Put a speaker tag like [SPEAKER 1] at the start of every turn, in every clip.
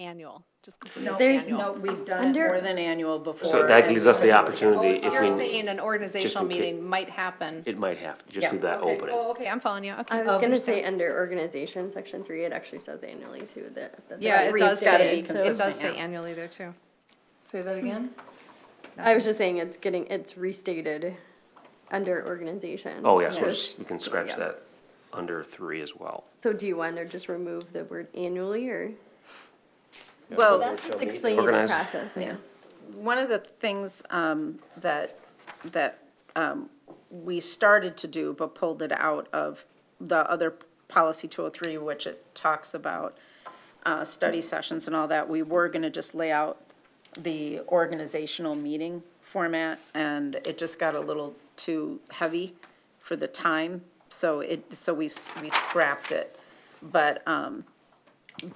[SPEAKER 1] annual, just
[SPEAKER 2] No,
[SPEAKER 1] consider it
[SPEAKER 2] there's
[SPEAKER 1] annual.
[SPEAKER 2] no, we've done it
[SPEAKER 3] Under-
[SPEAKER 2] more than annual before.
[SPEAKER 4] So that
[SPEAKER 2] and
[SPEAKER 4] gives us the
[SPEAKER 2] we've-
[SPEAKER 4] opportunity
[SPEAKER 1] Oh, So You're
[SPEAKER 4] if we,
[SPEAKER 1] saying an organizational
[SPEAKER 4] in ca-
[SPEAKER 1] meeting might happen.
[SPEAKER 4] it might happen, just
[SPEAKER 2] Yeah,
[SPEAKER 4] leave that
[SPEAKER 1] Okay,
[SPEAKER 4] open.
[SPEAKER 1] Oh, okay, I'm following you,
[SPEAKER 3] I
[SPEAKER 1] okay. Um,
[SPEAKER 3] was gonna
[SPEAKER 1] Understand.
[SPEAKER 3] say, under organization, section three, it actually says annually too, that. that the
[SPEAKER 1] Yeah, it
[SPEAKER 3] reads
[SPEAKER 1] does
[SPEAKER 3] gotta
[SPEAKER 1] say,
[SPEAKER 3] be
[SPEAKER 1] it
[SPEAKER 3] consistent.
[SPEAKER 1] does say
[SPEAKER 2] yeah.
[SPEAKER 1] annually there too. Hmm.
[SPEAKER 2] Say that again?
[SPEAKER 3] I was just saying, it's getting, it's restated under organization.
[SPEAKER 4] Oh, yes,
[SPEAKER 3] So
[SPEAKER 4] we'll
[SPEAKER 3] it's-
[SPEAKER 4] just- we can scratch
[SPEAKER 3] yeah.
[SPEAKER 4] that under three as well.
[SPEAKER 3] So do you want to just remove the word annually, or?
[SPEAKER 2] Well,
[SPEAKER 3] That's just explaining the
[SPEAKER 4] Organize.
[SPEAKER 3] process, I guess.
[SPEAKER 2] One of the things um, that, that um, we started to do but pulled it out of the other policy 203, which it talks about uh, study sessions and all that, we were going to just lay out the organizational meeting format, and it just got a little too heavy for the time, so it, so we, we scrapped it. But, um,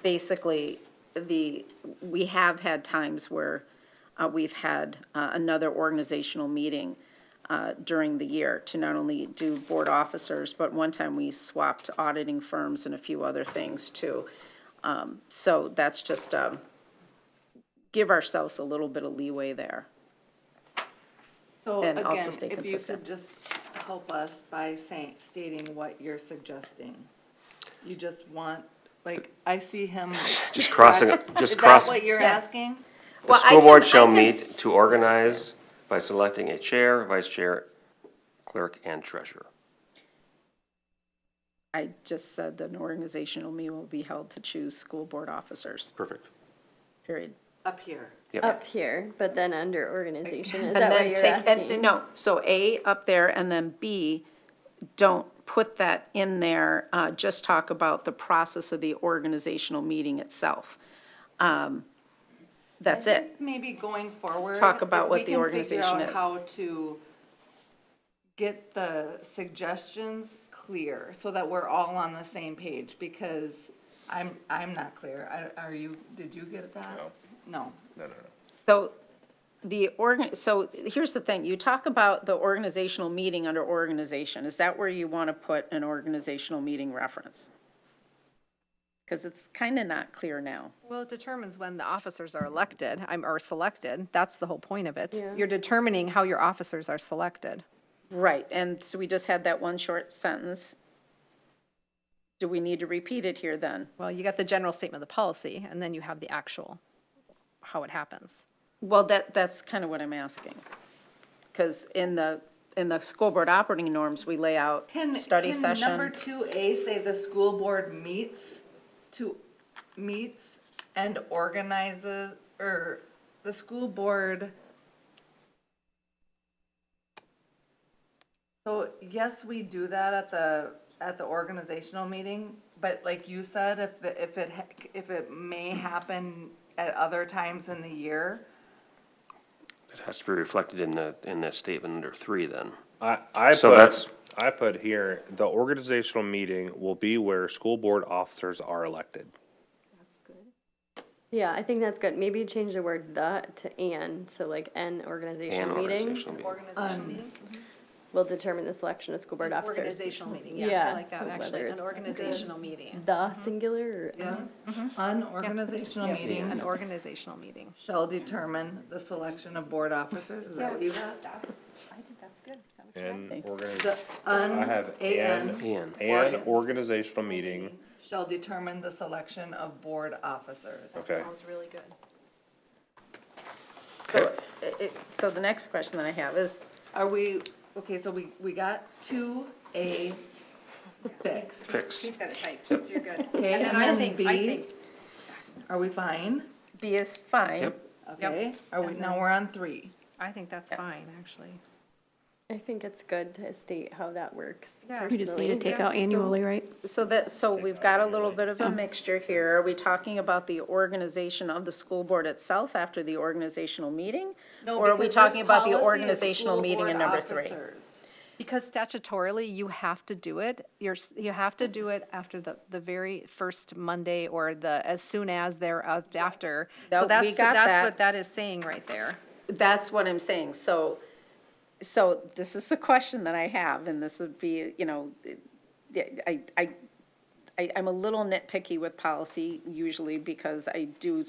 [SPEAKER 2] basically, the, we have had times where uh, we've had uh, another organizational meeting uh, during the year to not only do board officers, but one time we swapped auditing firms and a few other things too. Um, So that's just, um, give ourselves a little bit of leeway there.
[SPEAKER 5] So
[SPEAKER 2] and
[SPEAKER 5] again,
[SPEAKER 2] also stay
[SPEAKER 5] if you
[SPEAKER 2] consistent.
[SPEAKER 5] could just help us by saying, stating what you're suggesting. You just want, like, I see him.
[SPEAKER 4] Just crossing,
[SPEAKER 5] Is
[SPEAKER 4] just
[SPEAKER 5] that
[SPEAKER 4] cross,
[SPEAKER 5] what
[SPEAKER 4] the
[SPEAKER 5] you're asking?
[SPEAKER 2] The
[SPEAKER 4] school board shall meet to organize by selecting a chair, vice chair, clerk, and treasurer.
[SPEAKER 2] I just said that an organizational meeting will be held to choose school board officers,
[SPEAKER 4] Perfect.
[SPEAKER 2] period.
[SPEAKER 5] Up here.
[SPEAKER 3] Up here, but then under organization, is that
[SPEAKER 2] And
[SPEAKER 3] what
[SPEAKER 2] then
[SPEAKER 3] you're
[SPEAKER 2] take, and,
[SPEAKER 3] asking?
[SPEAKER 2] no, so A up there, and then B, don't put that in there, uh, just talk about the process of the organizational meeting itself. Um, That's it.
[SPEAKER 5] Maybe going forward.
[SPEAKER 2] Talk about
[SPEAKER 5] if
[SPEAKER 2] what
[SPEAKER 5] we
[SPEAKER 2] the
[SPEAKER 5] can figure
[SPEAKER 2] organization
[SPEAKER 5] out
[SPEAKER 2] is.
[SPEAKER 5] How to get the suggestions clear so that we're all on the same page because I'm, I'm not clear. I- Are you, did you get that? No. No.
[SPEAKER 2] So the organ, so here's the thing, you talk about the organizational meeting under organization, is that where you want to put an organizational meeting reference? Because it's kind of not clear now.
[SPEAKER 1] Well, it determines when the officers are elected, I'm, or selected, that's the whole point of it. You're determining how your officers are selected.
[SPEAKER 2] Right, and so we just had that one short sentence. Do we need to repeat it here then?
[SPEAKER 1] Well, you got the general statement of the policy, and then you have the actual, how it happens.
[SPEAKER 2] Well, that, that's kind of what I'm asking. Because in the, in the school board operating norms, we lay out
[SPEAKER 5] Can,
[SPEAKER 2] study
[SPEAKER 5] can
[SPEAKER 2] session.
[SPEAKER 5] number two A say the school board meets to, meets and organizes, or the school board? So, yes, we do that at the, at the organizational meeting, but like you said, if, the- if it, ha- if it may happen at other times in the year,
[SPEAKER 4] It has to be reflected in the, in the statement under three then.
[SPEAKER 6] I, I
[SPEAKER 4] So that's-
[SPEAKER 6] put, I put here, the organizational meeting will be where school board officers are elected.
[SPEAKER 3] Yeah, I think that's good. Maybe change the word the to and, so like an
[SPEAKER 4] And
[SPEAKER 3] organization meeting
[SPEAKER 4] organizational meeting.
[SPEAKER 3] will determine the selection of school board officers.
[SPEAKER 1] Organizational meeting,
[SPEAKER 3] yeah, I
[SPEAKER 1] yeah,
[SPEAKER 3] Yeah,
[SPEAKER 1] I like that,
[SPEAKER 3] so actually,
[SPEAKER 1] actually,
[SPEAKER 3] whether
[SPEAKER 1] an
[SPEAKER 3] an it's-
[SPEAKER 1] organizational meeting.
[SPEAKER 3] The singular or
[SPEAKER 5] yeah, Mm-hmm.
[SPEAKER 2] Mm-hmm.
[SPEAKER 5] an organizational meeting
[SPEAKER 1] An organizational meeting.
[SPEAKER 5] shall determine the selection of board officers, is that what you got?
[SPEAKER 1] I think that's good.
[SPEAKER 6] And
[SPEAKER 5] The
[SPEAKER 6] organiz, I
[SPEAKER 5] un,
[SPEAKER 6] have
[SPEAKER 5] AN
[SPEAKER 6] an,
[SPEAKER 4] And
[SPEAKER 6] an organizational meeting,
[SPEAKER 5] shall determine the selection of board officers.
[SPEAKER 6] okay.
[SPEAKER 1] really good.
[SPEAKER 2] So, it- it- so the next question that I have is,
[SPEAKER 5] Are we, okay, so we, we got two A fixed,
[SPEAKER 4] fixed.
[SPEAKER 1] He's got it typed, so you're good.
[SPEAKER 5] okay,
[SPEAKER 1] And then I think, I think,
[SPEAKER 5] are we fine?
[SPEAKER 2] B is fine.
[SPEAKER 4] Yep.
[SPEAKER 5] Okay, are we, now we're on three.
[SPEAKER 1] I think that's fine, actually.
[SPEAKER 3] I think it's good to state how that works
[SPEAKER 1] Yeah.
[SPEAKER 3] personally.
[SPEAKER 1] We
[SPEAKER 7] We just need to take out annually, right?
[SPEAKER 2] So that, so we've got a little bit of a mixture here. Are we talking about the organization of the school board itself after the organizational meeting?
[SPEAKER 5] No,
[SPEAKER 2] Or are we
[SPEAKER 5] because this
[SPEAKER 2] talking about the
[SPEAKER 5] policy is
[SPEAKER 2] organizational
[SPEAKER 5] school
[SPEAKER 2] meeting in
[SPEAKER 5] board
[SPEAKER 2] number three?
[SPEAKER 5] officers.
[SPEAKER 1] Because statutorily, you have to do it, you're, s- you have to do it after the, the very first Monday or the, as soon as thereafter.
[SPEAKER 2] No,
[SPEAKER 1] So
[SPEAKER 2] we
[SPEAKER 1] that's,
[SPEAKER 2] got
[SPEAKER 1] that's
[SPEAKER 2] that.
[SPEAKER 1] what that is saying right there.
[SPEAKER 2] That's what I'm saying. So, so this is the question that I have, and this would be, you know, I, I, I, I'm a little nitpicky with policy usually because I do